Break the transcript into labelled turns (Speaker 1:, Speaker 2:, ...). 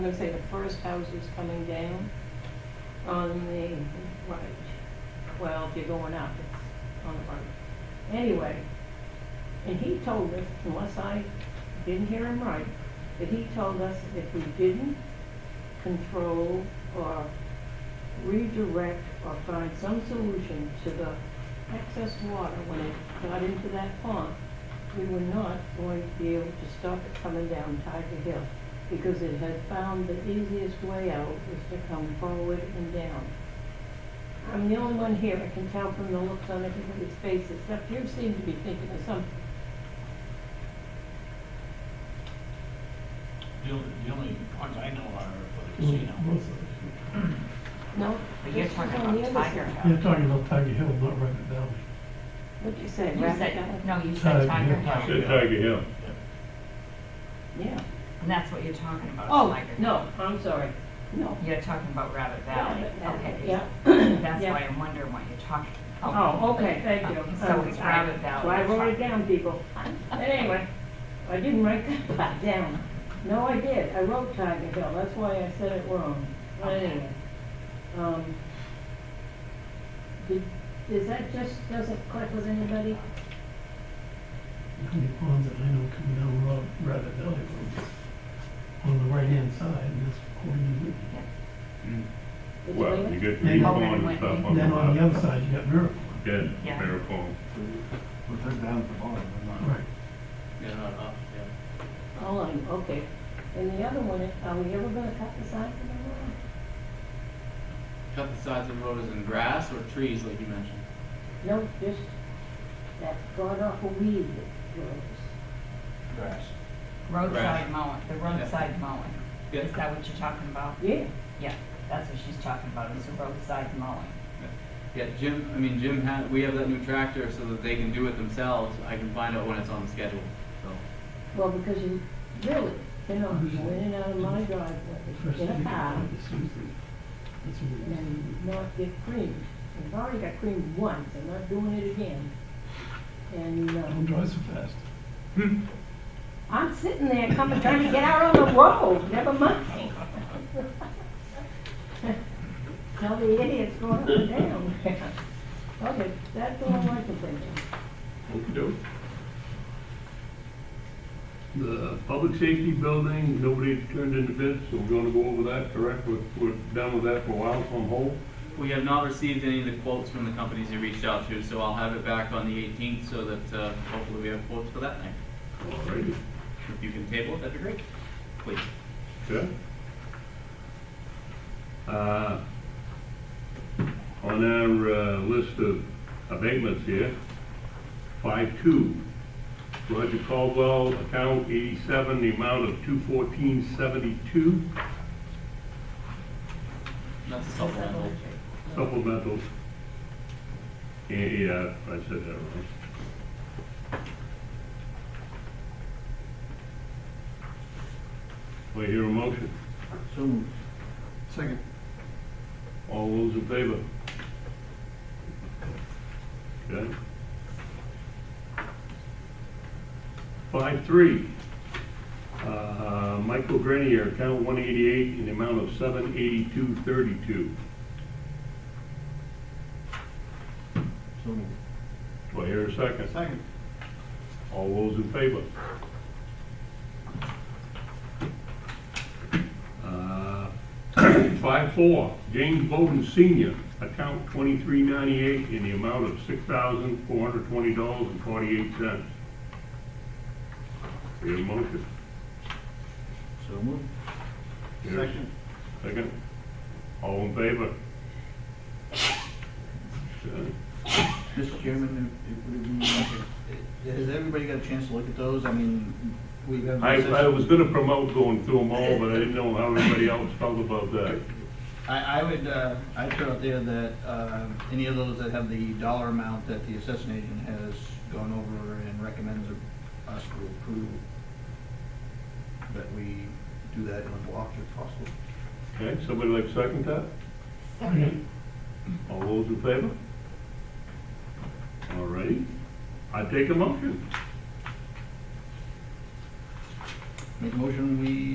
Speaker 1: I'm gonna say the first house is coming down on the right. Well, if you're going up, it's on the right. Anyway, and he told us, unless I didn't hear him right, that he told us if we didn't control or redirect or find some solution to the excess water when it got into that pond, we were not going to be able to stop it coming down Tiger Hill because it had found the easiest way out was to come forward and down. I'm the only one here that can tell from the looks on everybody's faces, except you seem to be thinking of something.
Speaker 2: The only, the only ones I know are for the
Speaker 3: Well,
Speaker 2: casino.
Speaker 3: both of
Speaker 1: No?
Speaker 4: But you're
Speaker 1: this is
Speaker 4: talking
Speaker 1: on the
Speaker 4: about
Speaker 1: other
Speaker 4: Tiger
Speaker 1: side.
Speaker 3: us. You're
Speaker 4: Hill.
Speaker 3: talking about Tiger Hill, not Rabbit Valley.
Speaker 1: What'd you say,
Speaker 4: You
Speaker 1: Rabbit
Speaker 4: said,
Speaker 1: Valley?
Speaker 4: no, you said Tiger Hill,
Speaker 5: Said Tiger Hill.
Speaker 1: Yeah.
Speaker 4: and that's what you're talking about,
Speaker 1: Oh,
Speaker 4: Tiger Hill.
Speaker 1: no, I'm sorry. No.
Speaker 4: You're talking about Rabbit Valley,
Speaker 1: Rabbit Valley,
Speaker 4: okay.
Speaker 1: Yeah.
Speaker 4: That's
Speaker 1: Yeah.
Speaker 4: why I'm wondering what you're talking about.
Speaker 1: Oh, okay, thank you.
Speaker 4: Okay, so it's Rabbit Valley.
Speaker 1: Well, I wrote it down, people. Anyway, I didn't write that part down. No, I did, I wrote Tiger Hill, that's why I said it wrong. But Anyway, um, did, is that just, doesn't click with anybody?
Speaker 3: The only ponds that I know come down Ra- Rabbit Valley Road on the right-hand side, and that's Hogan and Whitney.
Speaker 1: Did you
Speaker 5: Well,
Speaker 1: leave
Speaker 5: you
Speaker 1: it?
Speaker 5: get
Speaker 3: Yeah,
Speaker 5: three
Speaker 3: you-
Speaker 5: ponds and stuff on
Speaker 3: And
Speaker 5: the
Speaker 3: then on the
Speaker 5: left.
Speaker 3: other side, you got Miracle.
Speaker 5: Dead,
Speaker 4: Yeah.
Speaker 5: bare pond.
Speaker 6: Well, they're down at the bottom, they're not.
Speaker 3: Right.
Speaker 2: They're not up, yeah.
Speaker 1: Oh, I'm- okay. And the other one, is, are we ever gonna cut the size of the road?
Speaker 7: Cut the sides of the road as in grass or trees, like you mentioned?
Speaker 1: No, just that god awful weed that grows.
Speaker 2: Grass.
Speaker 7: Right.
Speaker 4: Roadside mowing, the roadside mowing.
Speaker 7: Yeah.
Speaker 4: Is that what you're talking about?
Speaker 1: Yeah,
Speaker 4: Yeah, that's what she's talking about, is the roadside mowing.
Speaker 7: Yeah, Jim, I mean, Jim had, we have that new tractor so that they can do it themselves. I can find out when it's on the schedule, so.
Speaker 1: well, because you really, you know, you went in and out of my driveway,
Speaker 3: First
Speaker 1: get a
Speaker 3: thing,
Speaker 1: car,
Speaker 3: the Susan. That's what it is.
Speaker 1: and not get creamed. I've already got creamed once, I'm not doing it again. And,
Speaker 3: Don't
Speaker 1: uh,
Speaker 3: drive so fast.
Speaker 1: I'm sitting there coming, trying to get out on the road, never mind. Tell the idiots going up and down. Okay, that's all I can think of.
Speaker 5: Okey-doke. The public safety building, nobody turned in the bids, so we're gonna go over that, correct? We're, we're done with that for a while, so I'm whole.
Speaker 7: We have not received any of the quotes from the companies you reached out to, so I'll have it back on the 18th so that uh, hopefully we have quotes for that night.
Speaker 5: All righty.
Speaker 7: If you can table it, that'd be great, please.
Speaker 5: Okay. Uh, On our uh, list of abatements here, five two, Roger Caldwell, account eighty-seven, the amount of two fourteen seventy-two,
Speaker 7: That's a supplemental.
Speaker 5: supplemental. Yeah, yeah, I said that wrong. Do I hear a motion?
Speaker 6: So moved. Second.
Speaker 5: All those in favor? Okay. Five, three. Uh, Michael Grenier, account one eighty-eight, in the amount of seven eighty-two thirty-two.
Speaker 6: So moved.
Speaker 5: Do I hear a second?
Speaker 6: Second.
Speaker 5: All those in favor? Uh, Five four, James Bowden Senior, account twenty-three ninety-eight in the amount of six thousand four hundred twenty dollars and forty-eight cents. Your motion.
Speaker 6: So moved.
Speaker 5: Yes.
Speaker 6: Second.
Speaker 5: Second. All in favor? Okay.
Speaker 6: Mr. Chairman, if, if we, we- has everybody got a chance to look at those? I mean, we have.
Speaker 5: I, I was gonna promote going through them all, but I didn't know how everybody else felt about that.
Speaker 6: I, I would, uh, I put out there that, uh, any of those that have the dollar amount that the assessment agent has gone over and recommends us to approve, that we do that in a block if possible.
Speaker 5: Okay, somebody like to second that?
Speaker 4: Second.
Speaker 5: All those in favor? All righty, I take a motion.
Speaker 6: Make a motion, we